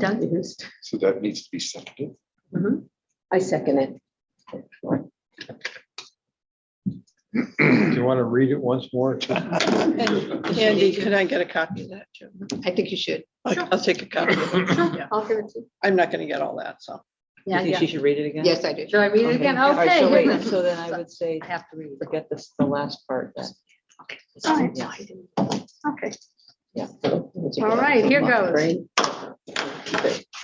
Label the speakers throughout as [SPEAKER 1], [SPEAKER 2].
[SPEAKER 1] Doug used.
[SPEAKER 2] So that needs to be seconded.
[SPEAKER 1] I second it.
[SPEAKER 3] Do you want to read it once more?
[SPEAKER 4] Andy, can I get a copy of that, Jim?
[SPEAKER 1] I think you should.
[SPEAKER 4] I'll I'll take a copy. of it.
[SPEAKER 1] I'll give it to you.
[SPEAKER 4] I'm not gonna get all that, so.
[SPEAKER 5] You
[SPEAKER 1] Yeah,
[SPEAKER 5] think
[SPEAKER 1] yeah.
[SPEAKER 5] she should read it again?
[SPEAKER 1] Yes, I do. Should I read it again?
[SPEAKER 5] All right, so
[SPEAKER 1] Okay.
[SPEAKER 5] wait, So then I would say,
[SPEAKER 1] I have to read.
[SPEAKER 5] forget this, the last part. then.
[SPEAKER 6] All right.
[SPEAKER 5] Yeah,
[SPEAKER 6] Okay,
[SPEAKER 5] yeah.
[SPEAKER 6] all right, here goes.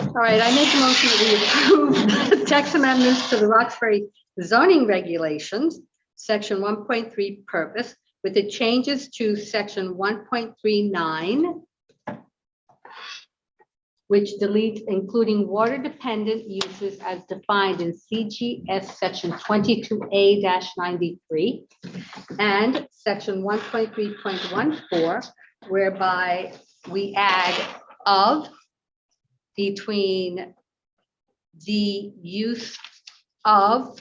[SPEAKER 6] All right, I make a motion that we approve text amendments to the Roxbury zoning regulations, section one point three purpose, with the changes to section one point three nine, which deletes including water dependent uses as defined in CGS section twenty-two A ninety-three and section one point three point one four, whereby we add of between the use of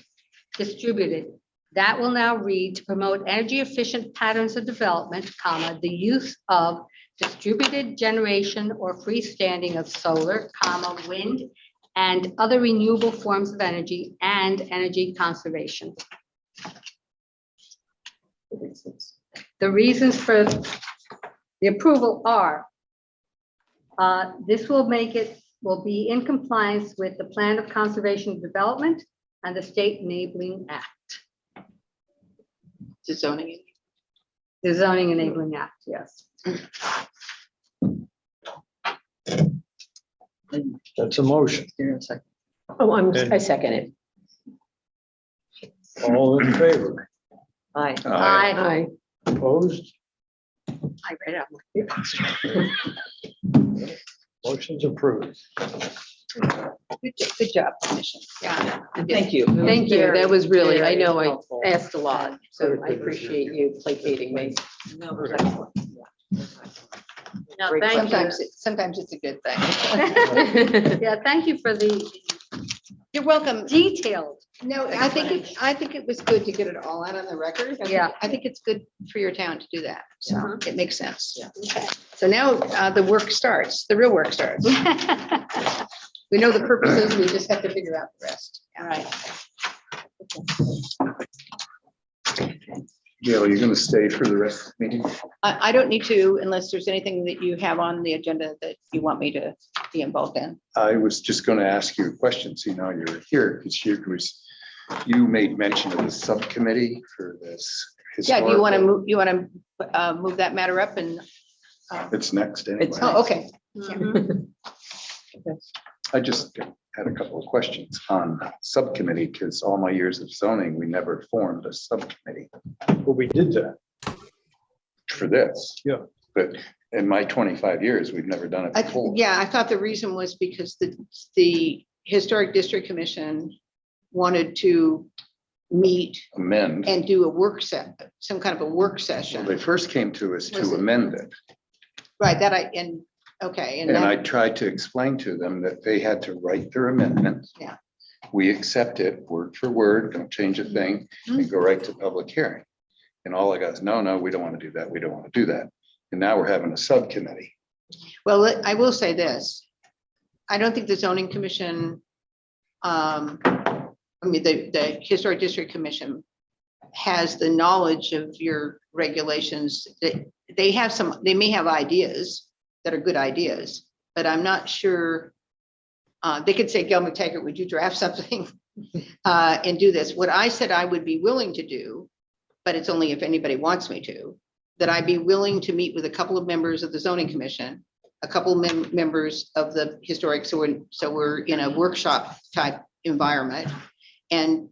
[SPEAKER 6] distributed. That will now read to promote energy efficient patterns of development, comma, the use of distributed generation or freestanding of solar, comma, wind, and other renewable forms of energy and energy conservation. The reasons for the approval are uh, this will make it, will be in compliance with the Plan of Conservation and Development and the State Enabling Act,
[SPEAKER 5] To zoning.
[SPEAKER 6] the Zoning Enabling Act, yes.
[SPEAKER 3] That's a motion.
[SPEAKER 1] Oh, I'm, I second it.
[SPEAKER 3] All in favor?
[SPEAKER 5] Aye.
[SPEAKER 2] Uh,
[SPEAKER 6] I,
[SPEAKER 1] Aye.
[SPEAKER 3] Opposed?
[SPEAKER 6] I read it.
[SPEAKER 3] Motion's approved.
[SPEAKER 1] Good job.
[SPEAKER 5] Yeah, and thank you.
[SPEAKER 1] Thank you. That was really, I know I
[SPEAKER 5] Helpful.
[SPEAKER 1] asked a lot, so I appreciate you placating me.
[SPEAKER 5] No, it was excellent.
[SPEAKER 1] No,
[SPEAKER 5] Great
[SPEAKER 1] thank you.
[SPEAKER 5] Sometimes
[SPEAKER 1] sometimes it's a good
[SPEAKER 6] Yeah, thank you for the
[SPEAKER 1] You're welcome.
[SPEAKER 6] detailed,
[SPEAKER 1] No, I think, it- I think it was good to get it all out on the record. I think-
[SPEAKER 6] Yeah.
[SPEAKER 1] I think it's good for your town to do that. So
[SPEAKER 7] Mm-hmm.
[SPEAKER 1] it makes sense.
[SPEAKER 5] Yeah.
[SPEAKER 1] Okay. So now uh, the work starts, the real work starts. We know the purposes, we just have to figure out the rest.
[SPEAKER 5] All right.
[SPEAKER 2] Gail, you're gonna stay for the rest of the meeting?
[SPEAKER 7] I, I don't need to unless there's anything that you have on the agenda that you want me to be involved in.
[SPEAKER 2] I was just gonna ask you a question, seeing how you're here, because you was, you made mention of the subcommittee for this.
[SPEAKER 7] Yeah, do you want to
[SPEAKER 2] historical-
[SPEAKER 7] move, you want to, uh, move that matter up and, uh,
[SPEAKER 2] It's next anyway.
[SPEAKER 5] It's-
[SPEAKER 7] oh, okay.
[SPEAKER 2] I just had a couple of questions on subcommittee, because all my years of zoning, we never formed a subcommittee
[SPEAKER 3] But we did that.
[SPEAKER 2] for this.
[SPEAKER 3] Yeah.
[SPEAKER 2] But in my twenty-five years, we've never done it
[SPEAKER 7] I,
[SPEAKER 2] before.
[SPEAKER 7] yeah, I thought the reason was because the, the Historic District Commission wanted to meet
[SPEAKER 2] Amend.
[SPEAKER 7] and do a work set, some kind of a work
[SPEAKER 2] Well,
[SPEAKER 7] session.
[SPEAKER 2] They first came to us
[SPEAKER 7] Was
[SPEAKER 2] to
[SPEAKER 7] it-
[SPEAKER 2] amend it.
[SPEAKER 7] Right, that I, and, okay, and
[SPEAKER 2] And I
[SPEAKER 7] that,
[SPEAKER 2] tried to explain to them that they had to write their amendment.
[SPEAKER 7] Yeah.
[SPEAKER 2] We accept it word for word, don't change a thing, and go right to public hearing. And all I got is, no, no, we don't want to do that, we don't want to do that. And now we're having a subcommittee.
[SPEAKER 7] well, let- I will say this. I don't think the zoning commission, um, I mean, the, the Historic District Commission has the knowledge of your regulations, that they have some, they may have ideas that are good ideas, but I'm not sure. Uh, they could say, Gail McTaggart, would you draft something? Uh, and do this. What I said I would be willing to do, but it's only if anybody wants me to, that I'd be willing to meet with a couple of members of the zoning commission, a couple of mem- members of the historic, so we're, so we're in a workshop type environment. And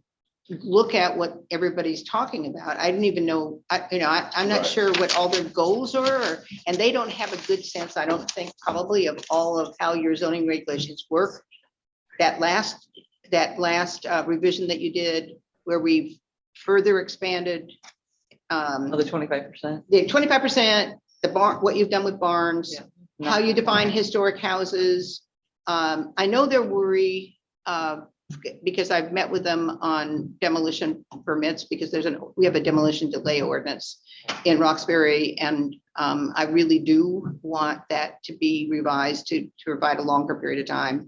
[SPEAKER 7] look at what everybody's talking about. I didn't even know, I, you know, I, I'm not
[SPEAKER 2] Right.
[SPEAKER 7] sure what all their goals are, or- and they don't have a good sense, I don't think, probably of all of how your zoning regulations work. That last, that last uh, revision that you did, where we further expanded um,
[SPEAKER 5] Another twenty-five percent.
[SPEAKER 7] the twenty-five percent, the barn, what you've done with barns, how you define historic houses. Um, I know they're worried, uh, because I've met with them on demolition permits, because there's an, we have a demolition delay ordinance in Roxbury, and Um, I really do want that to be revised to, to provide a longer period of time.